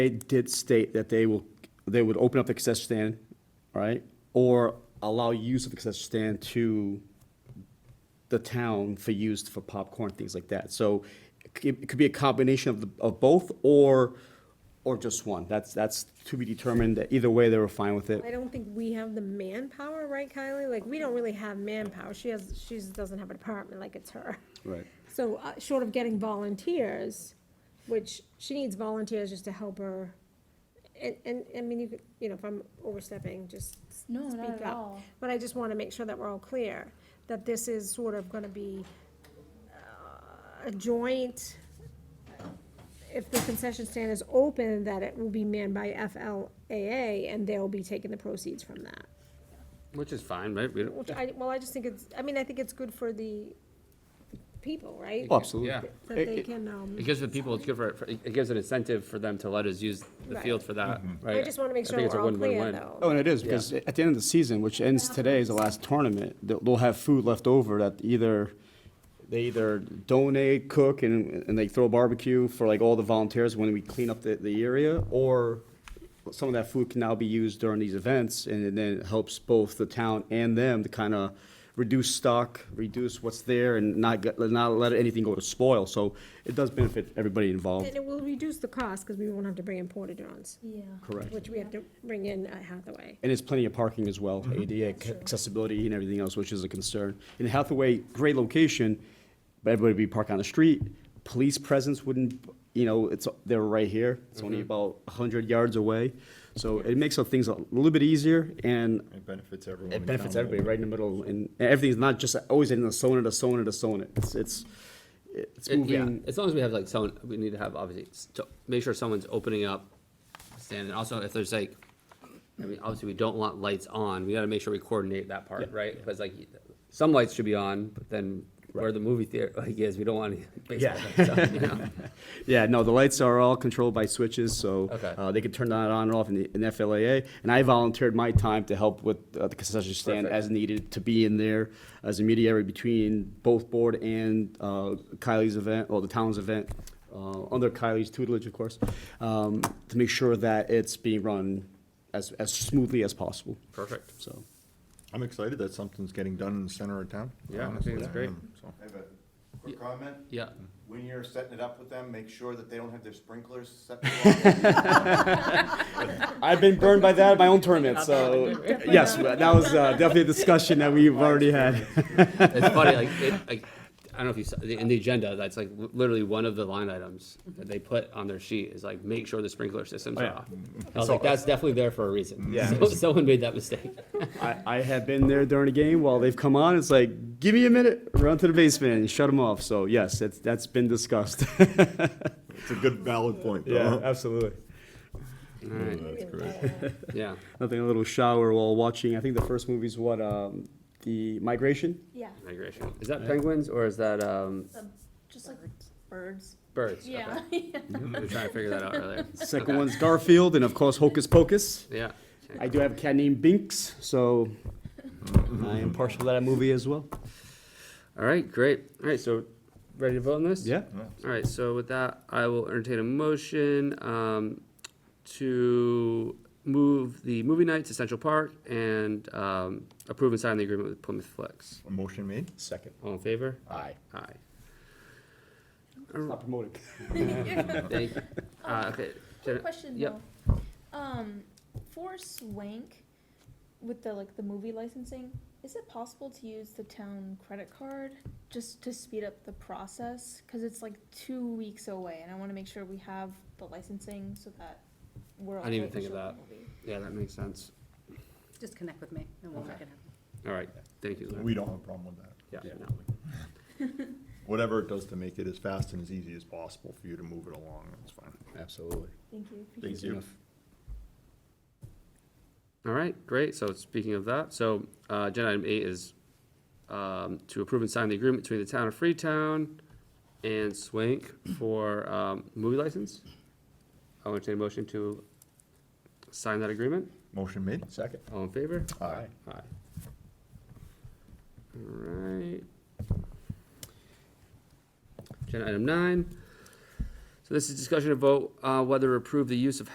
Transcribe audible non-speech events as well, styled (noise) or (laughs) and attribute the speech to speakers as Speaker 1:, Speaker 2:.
Speaker 1: They did state that they will, they would open up the concession stand, right? Or allow use of the concession stand to the town for use for popcorn, things like that. So it c- it could be a combination of, the of both or, or just one. That's, that's to be determined. Either way, they were fine with
Speaker 2: I
Speaker 1: it.
Speaker 2: don't think we have the manpower, right, Kylie? Like, we don't really have manpower. She has, she doesn't have a department like it's her.
Speaker 1: Right.
Speaker 2: So, uh, short of getting volunteers, which she needs volunteers just to help her. And, and, I mean, you could, you know, if I'm overstepping, just speak
Speaker 3: No,
Speaker 2: up.
Speaker 3: not at all.
Speaker 2: But I just wanna make sure that we're all clear, that this is sort of gonna be uh, a joint, if the concession stand is open, that it will be manned by FLAA, and they'll be taking the proceeds from that.
Speaker 4: Which is fine, right? We don't,
Speaker 2: Which I, well, I just think it's, I mean, I think it's good for the people, right?
Speaker 1: Oh, Absolutely.
Speaker 4: yeah.
Speaker 2: That
Speaker 1: It-
Speaker 2: they
Speaker 1: it-
Speaker 2: can, um.
Speaker 4: It gives the people, it's good for, for- it gives an incentive for them to let us use the
Speaker 2: Right.
Speaker 4: field for that, right?
Speaker 2: I just want to make
Speaker 4: I
Speaker 2: sure
Speaker 4: think it's a
Speaker 2: we're all clear,
Speaker 4: win-win-win.
Speaker 1: Oh,
Speaker 2: though.
Speaker 1: and it is, because at the end of the season, which ends today, is the last tournament, they'll, they'll have food left over that either, they either donate, cook, and, and they throw barbecue for like all the volunteers when we clean up the, the area, or some of that food can now be used during these events, and then it helps both the town and them to kind of reduce stock, reduce what's there, and not, get- not let anything go to spoil, so it does benefit everybody
Speaker 2: And
Speaker 1: involved.
Speaker 2: it will reduce the cost, because we won't have to bring in porta-johns,
Speaker 3: Yeah.
Speaker 1: Correct.
Speaker 2: which we have to bring in at Hathaway.
Speaker 1: And there's plenty of parking as well,
Speaker 4: Mm-hmm.
Speaker 1: ADA c- accessibility and everything else, which is a concern. In Hathaway, great location, but everybody would be parked on the street. Police presence wouldn't, you know, it's, they're right here. It's
Speaker 4: Mm-hmm.
Speaker 1: only about hundred yards away. So it makes the things a little bit easier and
Speaker 5: It benefits everyone.
Speaker 1: it
Speaker 5: in
Speaker 1: benefits
Speaker 5: town.
Speaker 1: everybody right in the middle. And and everything's not just always in the zone, the zone, the zone. It's, it's, it's
Speaker 4: It- yeah,
Speaker 1: moving.
Speaker 4: as long as we have like someone, we need to have obviously, s- to make sure someone's opening up, standing, also if there's like, I mean, obviously we don't want lights on, we gotta make sure we coordinate that part, right? Cause like, some lights should be on, but then where the movie theater, like is, we don't want any baseball lights on,
Speaker 1: (laughs)
Speaker 4: you know?
Speaker 1: Yeah, no, the lights are all controlled by switches, so
Speaker 4: Okay.
Speaker 1: uh, they can turn that on and off in the in FLAA. And I volunteered my time to help with uh, the concession stand
Speaker 4: Perfect.
Speaker 1: as needed, to be in there as a mediator between both board and uh, Kylie's event, or the town's event, uh, under Kylie's tutelage, of course, um, to make sure that it's being run as as smoothly as possible,
Speaker 4: Perfect.
Speaker 1: so.
Speaker 5: I'm excited that something's getting done in the center of town.
Speaker 4: Yeah, I think
Speaker 5: honestly,
Speaker 4: it's
Speaker 5: I
Speaker 4: great.
Speaker 5: am, so.
Speaker 6: I have a quick comment.
Speaker 4: Yeah,
Speaker 6: When you're setting it up with them, make sure that they don't have their sprinklers set.
Speaker 5: (laughs)
Speaker 6: off.
Speaker 1: I've been burned by that at my own tournament, so, yes, that was uh, definitely a discussion that we've already had.
Speaker 4: it's funny, like, it, like, I don't know if you saw, in the agenda, that's like literally one of the line items that they put on their sheet is like, make sure the sprinkler systems
Speaker 1: Oh,
Speaker 4: are
Speaker 1: yeah.
Speaker 4: off. I was like, that's definitely there for a reason.
Speaker 1: Yeah.
Speaker 4: So- (laughs) Someone made that mistake.
Speaker 1: I, I have been there during a game while they've come on. It's like, give me a minute, run to the basement and shut them off. So yes, that's that's been (laughs) discussed.
Speaker 5: It's a good valid point, though.
Speaker 1: Uh-huh. absolutely.
Speaker 5: That's great.
Speaker 4: Yeah,
Speaker 1: Nothing, a little shower while watching. I think the first movie's what um, the migration. (laughs)
Speaker 3: Yeah.
Speaker 4: migration. Is that penguins or is that um,
Speaker 2: (laughs)
Speaker 3: Just like birds.
Speaker 4: birds?
Speaker 3: Yeah.
Speaker 4: Okay. We Mm-hmm. were trying to figure that out earlier.
Speaker 1: Second
Speaker 4: Okay.
Speaker 1: one's Garfield, and of course Hocus Pocus.
Speaker 4: Yeah.
Speaker 1: I do have a cat named Binks, so I am partial to that movie as well.
Speaker 4: All right, great. All right, so ready to vote on this?
Speaker 1: Yeah.
Speaker 4: All right, so with that, I will entertain a motion um, to move the movie night to Central Park and um, approve and sign the agreement with Plymouth Flex.
Speaker 5: A Motion made?
Speaker 1: Second.
Speaker 4: All in favor?
Speaker 1: Aye.
Speaker 4: Aye.
Speaker 1: Not promoted.
Speaker 3: (laughs)
Speaker 4: Thank you. Uh, okay.
Speaker 3: Um, Quick question
Speaker 4: Yep.
Speaker 3: though. Um, for Swank, with the like the movie licensing, is it possible to use the town credit card just to speed up the process? Cause it's like two weeks away, and I want to make sure we have the licensing so that we're.
Speaker 4: I didn't even
Speaker 3: okay to
Speaker 4: think of
Speaker 3: show the
Speaker 4: that.
Speaker 3: movie.
Speaker 4: Yeah, that makes sense.
Speaker 7: Just connect with me and we'll make it happen.
Speaker 4: All right, thank you. Larry.
Speaker 5: We don't have a problem with that.
Speaker 4: Yeah.
Speaker 1: Yeah.
Speaker 4: no.
Speaker 5: Whatever it does to make it as fast and as easy as possible for you to move it along, that's fine.
Speaker 1: Absolutely.
Speaker 3: Thank you. appreciate
Speaker 5: Thank you.
Speaker 4: All right, great. So speaking of that, so uh, agenda item eight is um, to approve and sign the agreement between the town of Freetown and Swank for um, movie license. I'll entertain a motion to sign that agreement.
Speaker 5: Motion made?
Speaker 1: Second.
Speaker 4: All in favor?
Speaker 5: Aye.
Speaker 4: Aye. All right. Agenda item nine. So this is discussion of vote uh, whether approve the use of